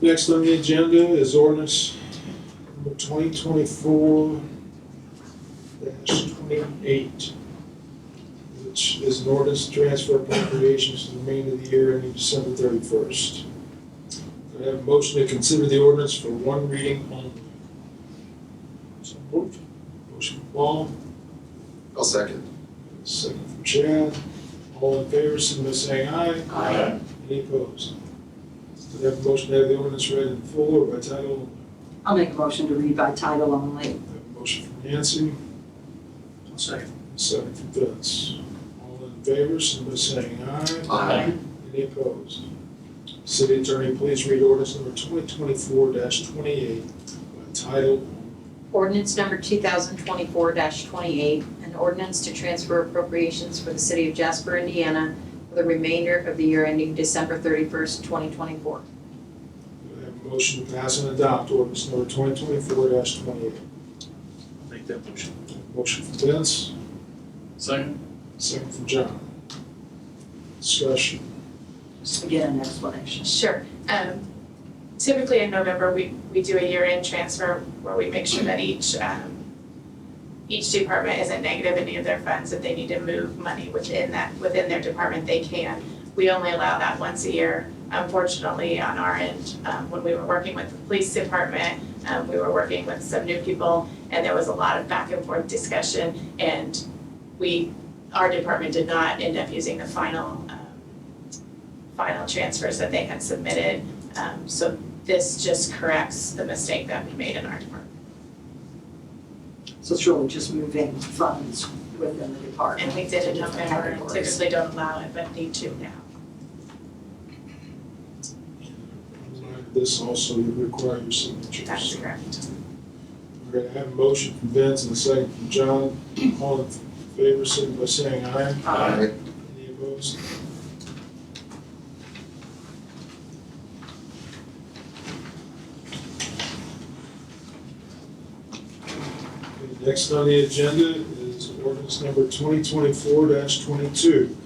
Next on the agenda is ordinance number twenty twenty-four twenty-eight, which is an ordinance to transfer appropriations to the remainder of the year ending December thirty-first. I have a motion to consider the ordinance for one reading only. So moved. Motion from Paul, I'll second. second from Chad. All in favor, signify by saying aye. Aye. Any opposed? Do I have a motion to have the ordinance read in full or by title only? I'll make a motion to read by title only. I have a motion from Nancy, I'll second. a second from Vince. All in favor, signify by saying aye. Aye. Any opposed? City Attorney, please read ordinance number twenty twenty-four twenty-eight by title only. Ordinance number two thousand twenty-four twenty-eight, an ordinance to transfer appropriations for the city of Jasper, Indiana for the remainder of the year ending December thirty-first, twenty twenty-four. Do I have a motion to pass and adopt ordinance number twenty twenty-four twenty-eight? I'll make that motion. Motion from Vince, Second. second from John. Discussion. Just to get an explanation. Sure. Um, typically in November, we, we do a year-end transfer where we make sure that each, um, each department isn't negative any of their funds. If they need to move money within that, within their department, they can. We only allow that once a year. Unfortunately, on our end, um, when we were working with the police department, um, we were working with some new people and there was a lot of back and forth discussion and we, our department did not end up using the final, um, final transfers that they had submitted. Um, so this just corrects the mistake that we made in our department. So it's really just moving funds within the department. And we did it in to different November, and categories. typically don't allow it, but need to now. This also requires signatures. That's correct. We're gonna have a motion from Vince and a second from John. All in favor, signify by saying aye. Aye. Any opposed? Okay, Next on the agenda is ordinance number twenty twenty-four twenty-two.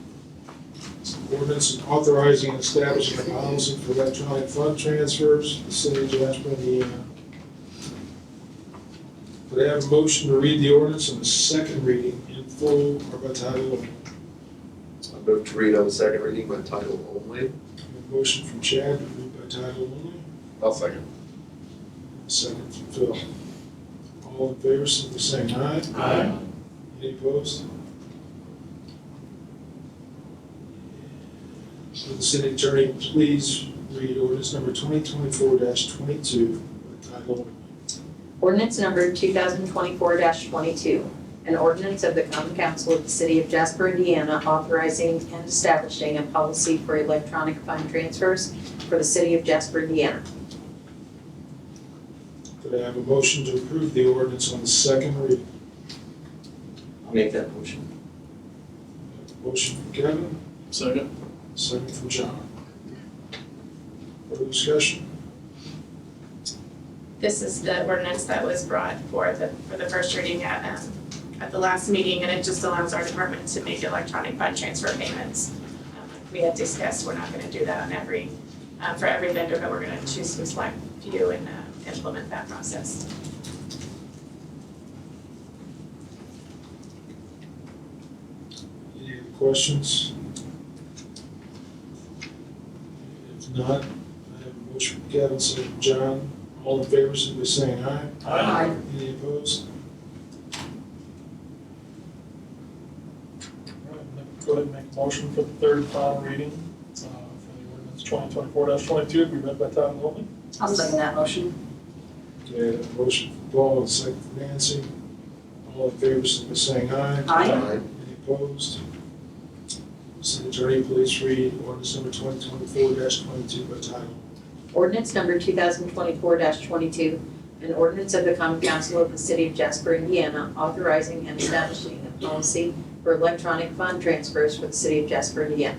It's an ordinance authorizing and establishing a policy for electronic fund transfers, to the city of Jasper, Indiana. Could I have a motion to read the ordinance on the second reading in full or by title only? I move to read on the second reading by title only. A Motion from Chad to read by title only, I'll second. a second from Phil. All in favor, simply saying aye. Aye. Any opposed? Will the city attorney please read ordinance number twenty twenty-four twenty-two by title only? Ordinance number two thousand twenty-four twenty-two, an ordinance of the common council of the city of Jasper, Indiana authorizing and establishing a policy for electronic fund transfers for the city of Jasper, Indiana. Could I have a motion to approve the ordinance on the second reading? I'll make that motion. Motion from Kevin, Second. second from John. Further discussion? This is the ordinance that was brought for the, for the first reading at, um, at the last meeting, and it just allows our department to make electronic fund transfer payments. Um, like We had discussed, we're not gonna do that on every, uh, for every vendor, but we're gonna choose some select few and, uh, implement that process. Any other questions? If not, I have a motion from Kevin, second from John. All in favor, simply saying aye. Aye. Any opposed? All right, then Go ahead and make a motion for the third and final reading uh, for the ordinance twenty twenty-four twenty-two, be read by title only. I'll second that motion. Okay, I have a motion from Paul and second from Nancy. All in favor, simply saying aye. Aye. Any opposed? City Attorney, please read ordinance number twenty twenty-four twenty-two by title. Ordinance number two thousand twenty-four twenty-two, an ordinance of the common council of the city of Jasper, Indiana, authorizing and establishing a policy for electronic fund transfers for the city of Jasper, Indiana.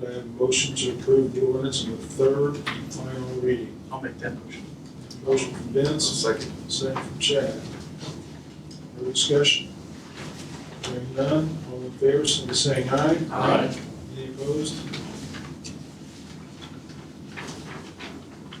Could I have a motion to approve the ordinance on the third and final reading? I'll make that motion. Motion from I'll Vince, second. Second from Chad. Further discussion? Hearing none, all in favor, so saying aye. Aye. Any opposed?